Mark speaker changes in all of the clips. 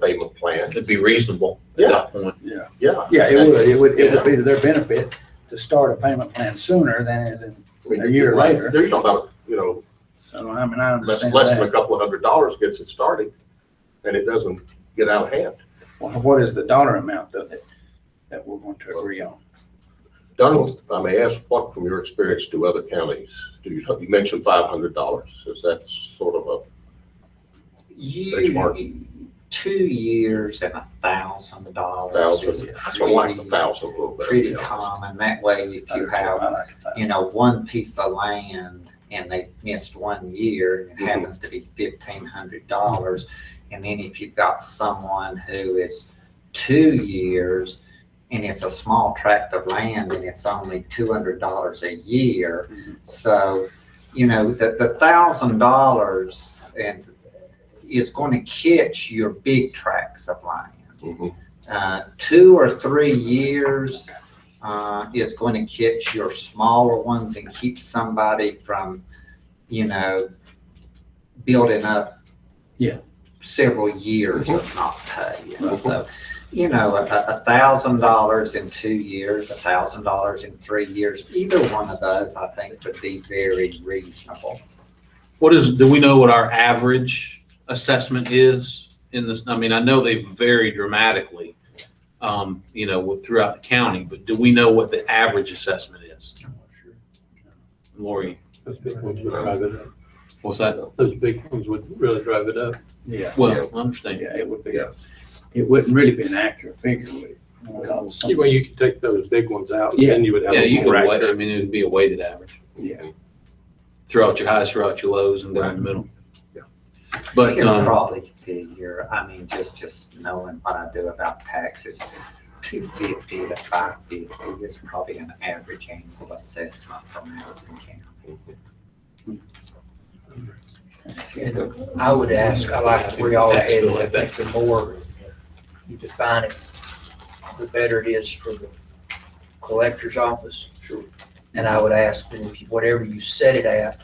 Speaker 1: payment plan.
Speaker 2: It'd be reasonable at that point.
Speaker 1: Yeah.
Speaker 3: Yeah, it would, it would, it would be to their benefit to start a payment plan sooner than is in,
Speaker 1: I mean,
Speaker 3: A year
Speaker 1: right,
Speaker 3: later.
Speaker 1: There's no, doubt, you know,
Speaker 3: so I mean, I
Speaker 1: less,
Speaker 3: understand
Speaker 1: less than a
Speaker 3: that.
Speaker 1: couple of hundred dollars gets it started and it doesn't get out of hand.
Speaker 3: Well, What is the dollar amount though that, that we're going to agree on?
Speaker 1: Donald, if I may ask, what from your experience do other counties, do you, you mentioned five hundred dollars, is that sort of
Speaker 4: You, two years and a thousand
Speaker 1: a
Speaker 4: dollars. is
Speaker 1: thousand, something like a
Speaker 4: pretty-
Speaker 1: thousand a little bit?
Speaker 4: Pretty
Speaker 1: you know?
Speaker 4: common. That way, if you have,
Speaker 3: I like that.
Speaker 4: you know, one piece of land and they missed one year, and it
Speaker 1: Mhm.
Speaker 4: happens to be fifteen hundred dollars. And then if you've got someone who is two years and it's a small tract of land and it's only two hundred dollars a year.
Speaker 3: Mhm.
Speaker 4: So, you know, the, the thousand dollars and is going to catch your big tracts of land.
Speaker 1: Mhm.
Speaker 4: Uh, two or three years uh, is going to catch your smaller ones and keep somebody from, you know, building up.
Speaker 3: Yeah.
Speaker 4: Several years of not pay. And So, you know, a, a thousand dollars in two years, a thousand dollars in three years, either one of those, I think would be very reasonable.
Speaker 2: What is, do we know what our average assessment is in this? I mean, I know they vary dramatically, um, you know, with- throughout the county, but do we know what the average assessment is? Lori,
Speaker 5: Those big ones would drive it up.
Speaker 2: what's that?
Speaker 5: Those big ones would really drive it up.
Speaker 3: Yeah,
Speaker 2: Well, I understand.
Speaker 3: yeah, it would be,
Speaker 1: Yeah.
Speaker 3: it wouldn't really be an accurate figure, would it? Because some-
Speaker 5: Well, you could take those big ones out and
Speaker 3: Yeah.
Speaker 5: then you would have.
Speaker 2: Yeah, you
Speaker 5: a
Speaker 2: could
Speaker 5: rack
Speaker 2: wait, I
Speaker 5: there.
Speaker 2: mean, it'd be a weighted average.
Speaker 3: Yeah.
Speaker 2: Throughout your highs, throughout your lows, and down the middle.
Speaker 1: Yeah.
Speaker 2: But,
Speaker 4: You can
Speaker 2: um,
Speaker 4: probably figure, I mean, just, just knowing what I do about taxes, two fifty to five fifty is probably an average annual assessment for Madison County.
Speaker 6: I would ask, I like where y'all are headed, I think the more you define it, the better it is for the collector's office. Sure. And I would ask that if, you- whatever you set it at,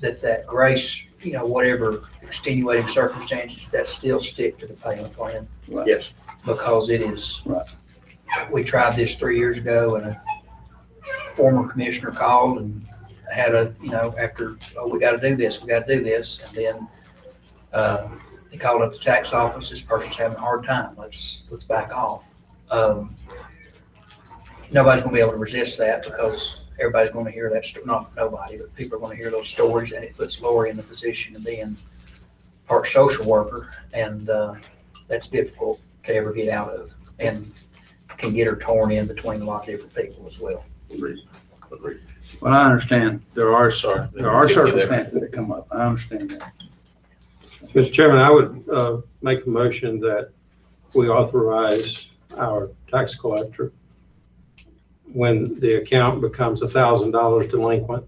Speaker 6: that that grace, you know, whatever extenuating circumstances, that still stick to the payment plan,
Speaker 1: Yes,
Speaker 6: because it is.
Speaker 3: Right.
Speaker 6: We tried this three years ago, and a former commissioner called and had a, you know, after, oh, we gotta do this, we gotta do this, and then uh, They called up the tax office, this person's having a hard time, let's, let's back off. Um, Nobody's gonna be able to resist that because everybody's gonna hear that, sto- not nobody, but people are gonna hear those stories and it puts Lori in the position of being part social worker and uh, that's difficult to ever get out of and can get her torn in between a lot of different people as well.
Speaker 1: agreed, agreed.
Speaker 3: Well, I understand, there are, cer- there are
Speaker 2: Give you that.
Speaker 3: circumstances that come up, I understand that.
Speaker 5: Mr. Chairman, I would uh, make a motion that we authorize our tax collector when the account becomes $1,000 delinquent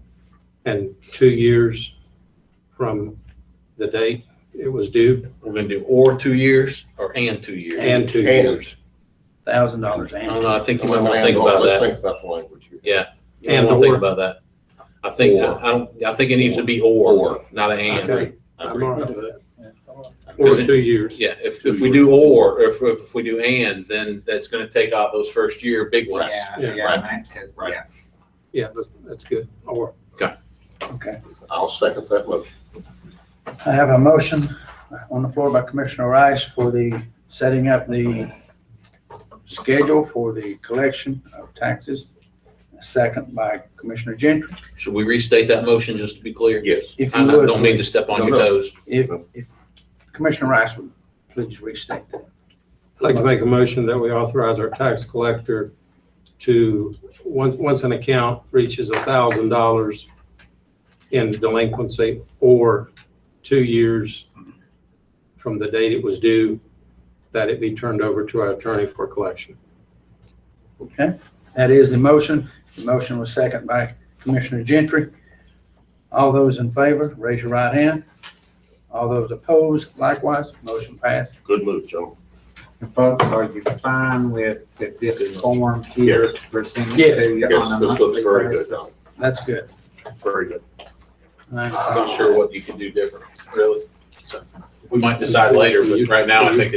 Speaker 5: and two years from the date it was due
Speaker 2: we're gonna do or two years or and two years.
Speaker 5: and two
Speaker 1: And-
Speaker 5: years.
Speaker 3: Thousand dollars
Speaker 2: I
Speaker 3: annually.
Speaker 2: don't know, I think you might wanna think about
Speaker 1: Let's
Speaker 2: that.
Speaker 1: think about the language here.
Speaker 2: You might
Speaker 5: And
Speaker 2: wanna think
Speaker 5: or.
Speaker 2: about that. I think, I
Speaker 1: Or.
Speaker 2: don't, I think it needs to be or, not a and.
Speaker 5: Okay.
Speaker 2: I
Speaker 5: I'm
Speaker 2: agree.
Speaker 5: all right with that. Or
Speaker 2: Because it-
Speaker 5: two years.
Speaker 2: Yeah, if, if we do or, if, if we do and, then that's gonna take out those first year big ones.
Speaker 4: Yeah,
Speaker 5: Yeah,
Speaker 4: yeah, that too,
Speaker 1: right.
Speaker 4: yeah.
Speaker 5: Yeah, that's, that's good. Or
Speaker 3: Okay.
Speaker 1: I'll second that motion.
Speaker 3: I have a motion on the floor by Commissioner Rice for the, setting up the schedule for the collection of taxes. Second by Commissioner Gentry.
Speaker 2: Should we restate that motion just to be clear?
Speaker 1: Yes,
Speaker 3: If
Speaker 2: I
Speaker 3: you
Speaker 2: I don't mean
Speaker 3: would,
Speaker 2: to step on
Speaker 1: No,
Speaker 2: your
Speaker 1: no.
Speaker 2: toes.
Speaker 3: if, if Commissioner Rice would please restate that.
Speaker 5: I'd like to make a motion that we authorize our tax collector to, once, once an account reaches a thousand dollars in delinquency or two years from the date it was due, that it be turned over to our attorney for collection.
Speaker 3: Okay, that is the motion. The motion was second by Commissioner Gentry. All those in favor, raise your right hand. All those opposed, likewise, motion passed.
Speaker 1: good move, gentlemen.
Speaker 4: Folks, are you fine with, with this form here presented
Speaker 3: Yes.
Speaker 4: to you
Speaker 1: Yes,
Speaker 4: on a
Speaker 1: this looks
Speaker 4: monthly
Speaker 1: very good,
Speaker 4: basis?
Speaker 1: Donald,
Speaker 3: That's good.
Speaker 1: very good.
Speaker 3: All right.
Speaker 2: I'm not sure what you can do different, really. we might decide later, but right now I think